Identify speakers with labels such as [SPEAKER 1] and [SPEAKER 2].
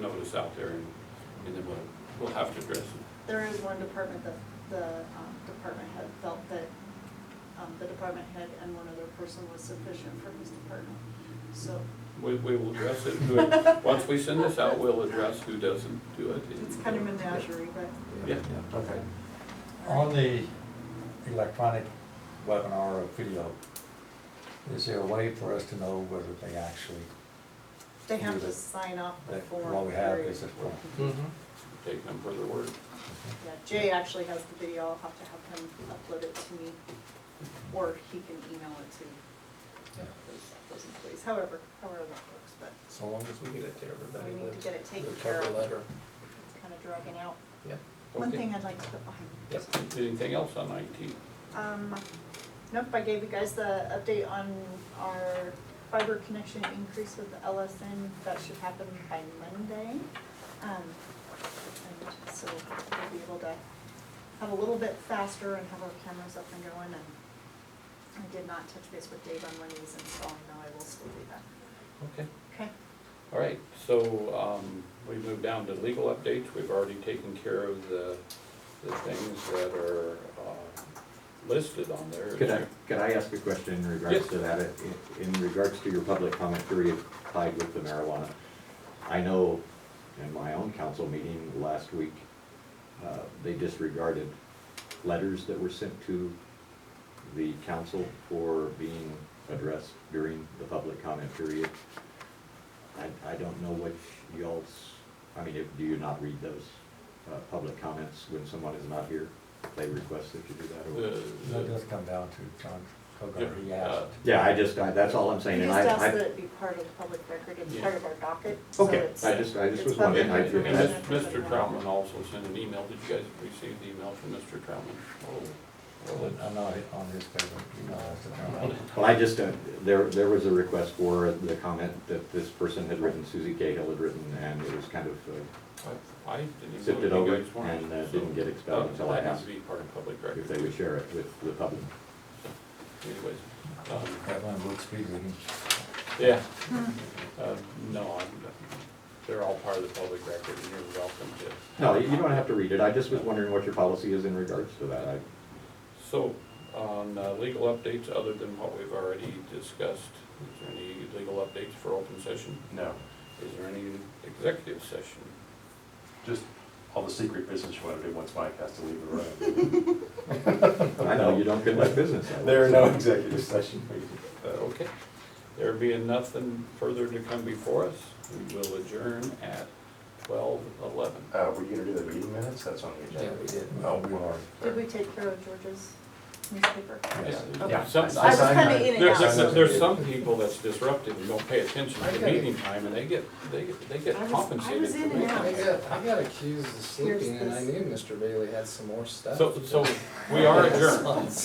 [SPEAKER 1] notice out there and, and then we'll, we'll have to address it.
[SPEAKER 2] There is one department that the um, department head felt that um, the department head and one other person was sufficient for his department. So
[SPEAKER 1] We, we will address it, who, once we send this out, we'll address who doesn't do it.
[SPEAKER 2] it's kind of menagerie, but.
[SPEAKER 1] Yeah.
[SPEAKER 3] Okay.
[SPEAKER 4] On the electronic webinar or video, is there a way for us to know whether they actually,
[SPEAKER 2] They have to sign off the
[SPEAKER 4] that
[SPEAKER 2] form.
[SPEAKER 4] what we have
[SPEAKER 2] period.
[SPEAKER 4] is a form?
[SPEAKER 1] Take them for their word.
[SPEAKER 2] Yeah, Jay actually has the video. I'll have to have him upload it to me, or he can email it to those employees, however, however that works, but
[SPEAKER 3] So long as we get it to everybody.
[SPEAKER 2] We need to
[SPEAKER 3] the-
[SPEAKER 2] get it taken
[SPEAKER 3] the
[SPEAKER 2] care
[SPEAKER 3] cover
[SPEAKER 2] of.
[SPEAKER 3] letter.
[SPEAKER 2] it's kind of dragging out.
[SPEAKER 3] Yep.
[SPEAKER 2] One
[SPEAKER 1] Okay.
[SPEAKER 2] thing I'd like to put behind me.
[SPEAKER 3] Yep.
[SPEAKER 1] Anything else on IT?
[SPEAKER 2] Um, nope, I gave you guys the update on our fiber connection increase with LSN, that should happen by Monday. Um, and so we'll be able to have a little bit faster and have our cameras up and going, and I did not touch base with Dave on when he's installing, though I will still do that.
[SPEAKER 1] Okay.
[SPEAKER 2] Okay,
[SPEAKER 1] All right, so, um, we move down to legal updates, we've already taken care of the, the things that are, uh, listed on there.
[SPEAKER 5] Could I, could I ask a question in
[SPEAKER 1] Yes.
[SPEAKER 5] regards to that? In- In regards to your public comment period tied with the marijuana, I know in my own council meeting last week, uh, they disregarded letters that were sent to the council for being addressed during the public comment period. I, I don't know what y'all's, I mean, if- do you not read those uh, public comments when someone is not here? They request that you do that or?
[SPEAKER 1] The-
[SPEAKER 4] That does come down to John Kogar, he asked.
[SPEAKER 5] Yeah, I just, I, that's all I'm saying,
[SPEAKER 2] you
[SPEAKER 5] and
[SPEAKER 2] just asked
[SPEAKER 5] I,
[SPEAKER 2] that
[SPEAKER 5] I,
[SPEAKER 2] it be part of the public record, it's
[SPEAKER 1] Yeah.
[SPEAKER 2] part of our docket, so
[SPEAKER 5] okay,
[SPEAKER 2] it's.
[SPEAKER 5] I just, I just
[SPEAKER 2] it's
[SPEAKER 5] was
[SPEAKER 2] public
[SPEAKER 5] wondering, I,
[SPEAKER 1] And
[SPEAKER 2] information.
[SPEAKER 5] that's,
[SPEAKER 1] Mis- Mr. Troutman also sent an email, did you guys receive the email from Mr. Troutman?
[SPEAKER 4] I'm not on his paper, you know, that's the
[SPEAKER 5] well, I just, uh, there, there was a request for the comment that this person had written, Susie Cahill had written, and it was kind of, uh,
[SPEAKER 1] I- I didn't even
[SPEAKER 5] Sifted
[SPEAKER 1] know you
[SPEAKER 5] over
[SPEAKER 1] guys wanted.
[SPEAKER 5] and, uh,
[SPEAKER 1] so
[SPEAKER 5] didn't get expelled
[SPEAKER 1] that-
[SPEAKER 5] until I
[SPEAKER 1] That has
[SPEAKER 5] asked.
[SPEAKER 1] to be part of public
[SPEAKER 5] if they
[SPEAKER 1] record
[SPEAKER 5] would share it with the public.
[SPEAKER 1] anyways. Um,
[SPEAKER 4] That one looks speed reading.
[SPEAKER 1] Yeah.
[SPEAKER 2] Hmm.
[SPEAKER 1] Uh, No, I'm, they're all part of the public record and you're welcome to.
[SPEAKER 5] No, you you don't have to read it, I just was wondering what your policy is in regards to that, I,
[SPEAKER 1] So on uh, legal updates, other than what we've already discussed, is there any legal updates for open session?
[SPEAKER 6] No,
[SPEAKER 1] Is there any executive session?
[SPEAKER 6] just all the secret business you want to do once Mike has to leave the room.
[SPEAKER 5] I know you don't conduct business. that way.
[SPEAKER 6] There are no executive session
[SPEAKER 1] Uh, Okay. There being nothing further to come before us, we will adjourn at twelve eleven.
[SPEAKER 6] Uh, were you gonna do the meeting minutes? That's on the agenda.
[SPEAKER 3] did.
[SPEAKER 6] Oh,
[SPEAKER 4] We are.
[SPEAKER 2] Did we take care of George's newspaper?
[SPEAKER 4] Yes.
[SPEAKER 1] Yeah, some-
[SPEAKER 2] I was kind of in and
[SPEAKER 1] There's,
[SPEAKER 2] out.
[SPEAKER 1] there's, there's some people that's disruptive and don't pay attention to the meeting time, and they get, they get, they get
[SPEAKER 2] I was- I
[SPEAKER 1] compensated
[SPEAKER 2] was
[SPEAKER 1] for
[SPEAKER 2] in and
[SPEAKER 1] making
[SPEAKER 2] out.
[SPEAKER 7] I
[SPEAKER 1] it.
[SPEAKER 7] got, I got accused of
[SPEAKER 2] Here's
[SPEAKER 7] sleeping and I
[SPEAKER 2] this.
[SPEAKER 7] knew Mr. Bailey had some more stuff.
[SPEAKER 1] So, so we are adjourned.